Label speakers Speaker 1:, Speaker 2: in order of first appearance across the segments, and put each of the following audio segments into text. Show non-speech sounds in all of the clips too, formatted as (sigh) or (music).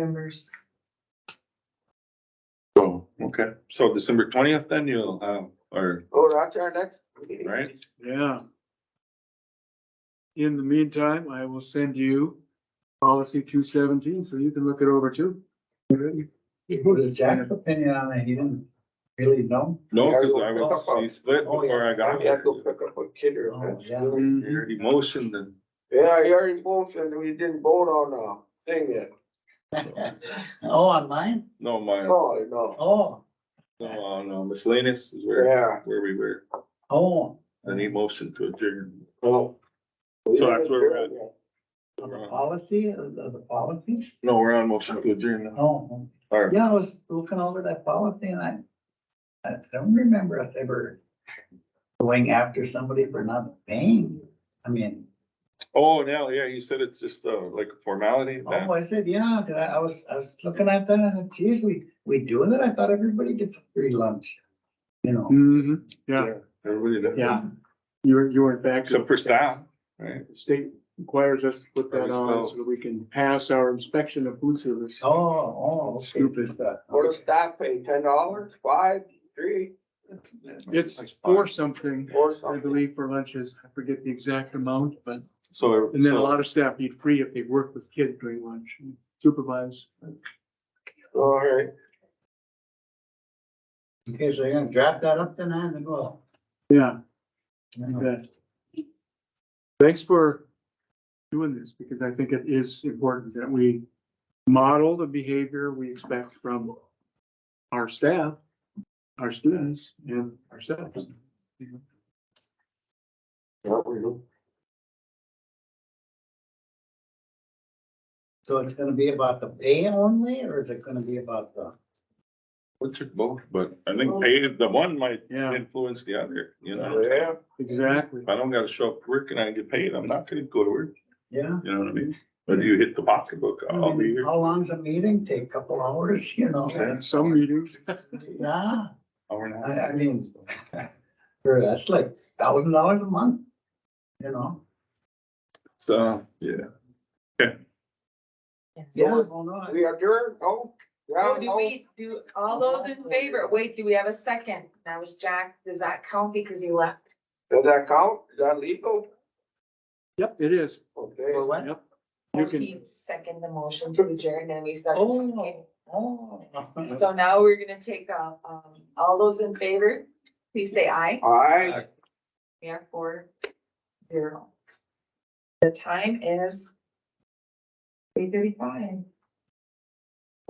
Speaker 1: numbers.
Speaker 2: So, okay, so December twentieth then you'll have, or,
Speaker 3: Oh, that's our next meeting.
Speaker 2: right?
Speaker 4: Yeah. In the meantime, I will send you policy two seventeen, so you can look it over too. Mm-hmm.
Speaker 5: What is Jack's opinion on that? He didn't really know?
Speaker 2: No, cause I was, he slid
Speaker 4: Oh,
Speaker 2: before I got
Speaker 3: Oh, I gotta
Speaker 2: here.
Speaker 3: go pick up a kidder.
Speaker 5: Oh, yeah.
Speaker 3: absolutely.
Speaker 2: He motioned
Speaker 4: (laughs)
Speaker 2: and,
Speaker 3: Yeah, he already motioned, we didn't vote on the thing yet.
Speaker 5: Oh, online?
Speaker 2: no, my,
Speaker 3: No, no,
Speaker 5: Oh,
Speaker 2: no, uh, no, miscellaneous is where,
Speaker 3: yeah,
Speaker 2: where we were,
Speaker 5: oh,
Speaker 2: and he motioned to adjourn.
Speaker 3: no.
Speaker 2: So that's where we're at.
Speaker 5: of the policy, of the of the policy?
Speaker 2: No, we're on motion to adjourn now.
Speaker 5: Oh,
Speaker 2: All right,
Speaker 5: yeah, I was looking over that policy and I, I don't remember us ever going after somebody for not paying. I mean,
Speaker 2: oh, now, yeah, he said it's just, uh, like a formality. that-
Speaker 5: oh, I said, yeah, 'cause I, I was, I was looking at that and I said, geez, we, we doing it? I thought everybody gets a free lunch, you know?
Speaker 4: Mm-hmm, yeah,
Speaker 2: Everybody does.
Speaker 4: yeah. You're, you're in fact.
Speaker 2: Except for staff, right?
Speaker 4: The State requires us to put that on
Speaker 2: Always
Speaker 4: so that we can pass our inspection of food service.
Speaker 5: Oh, oh, okay.
Speaker 4: Stupid.
Speaker 3: What does staff pay, ten dollars, five, three,
Speaker 4: It's for something,
Speaker 3: or
Speaker 4: I
Speaker 3: something?
Speaker 4: believe, for lunches. I forget the exact amount, but,
Speaker 2: So.
Speaker 4: and then a
Speaker 2: so-
Speaker 4: lot of staff need free if they work with kids during lunch, and supervise.
Speaker 3: All right,
Speaker 5: Okay, so you're gonna draft that up tonight and go.
Speaker 4: Yeah, that. Thanks for doing this, because I think it is important that we model the behavior we expect from our staff, our students, and ourselves.
Speaker 5: So it's gonna be about the pay only, or is it gonna be about the,
Speaker 2: Which are both, but I think pay, the one might
Speaker 4: Yeah,
Speaker 2: influence the other, you know?
Speaker 3: yeah,
Speaker 4: exactly.
Speaker 2: If I don't gotta show up to work and I get paid, I'm not gonna go to work,
Speaker 5: yeah?
Speaker 2: you know what I mean? But you hit the pocketbook,
Speaker 5: I
Speaker 2: I'll be
Speaker 5: mean,
Speaker 2: here.
Speaker 5: How long's a meeting? Take a couple hours, (laughs) you know?
Speaker 2: Yeah.
Speaker 4: Some meetings, (laughs)
Speaker 5: Yeah,
Speaker 2: Hour and a
Speaker 5: I,
Speaker 2: half.
Speaker 5: I mean, sure, that's like thousand dollars a month, you know?
Speaker 2: So, yeah.
Speaker 5: Yeah, well, no, I-
Speaker 3: we adjourned, oh, yeah,
Speaker 1: Oh, do
Speaker 3: no,
Speaker 1: we, do all those in favor, wait, do we have a second? That was Jack, does that count because he left?
Speaker 3: does that count, is that legal?
Speaker 4: yep, it is,
Speaker 3: Okay.
Speaker 5: For what?
Speaker 4: yep. You can,
Speaker 1: He Second the motion to adjourn, and we started
Speaker 5: Oh.
Speaker 1: talking.
Speaker 5: Oh. (laughs)
Speaker 1: So now we're gonna take, uh, um, all those in favor, please say aye.
Speaker 3: Aye,
Speaker 1: We are four, zero. The time is eight thirty-five.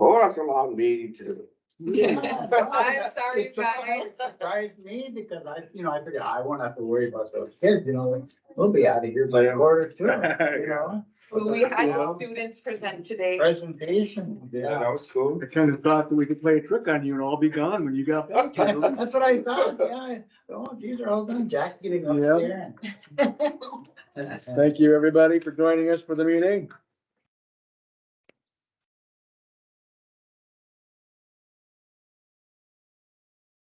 Speaker 3: oh, that's a long meeting too.
Speaker 5: Yeah.
Speaker 1: Oh, I'm sorry,
Speaker 5: It surprised- (laughs)
Speaker 1: guys.
Speaker 5: Surprised me because I, you know, I figured I won't have to worry about those kids, you know, like, we'll be out of here by quarter two,
Speaker 2: (laughs)
Speaker 5: you know?
Speaker 1: We had
Speaker 5: Yeah.
Speaker 1: students present today.
Speaker 5: Presentation, yeah.
Speaker 3: was (laughs) cool.
Speaker 4: I kind of thought that we could play a trick on you and all be gone when you got back. you
Speaker 5: (laughs)
Speaker 4: know?
Speaker 5: That's what I thought, yeah. Oh, these are all done, Jack getting up
Speaker 4: Yeah.
Speaker 5: there. and- (laughs)
Speaker 4: Thank you, everybody, for joining us for the meeting.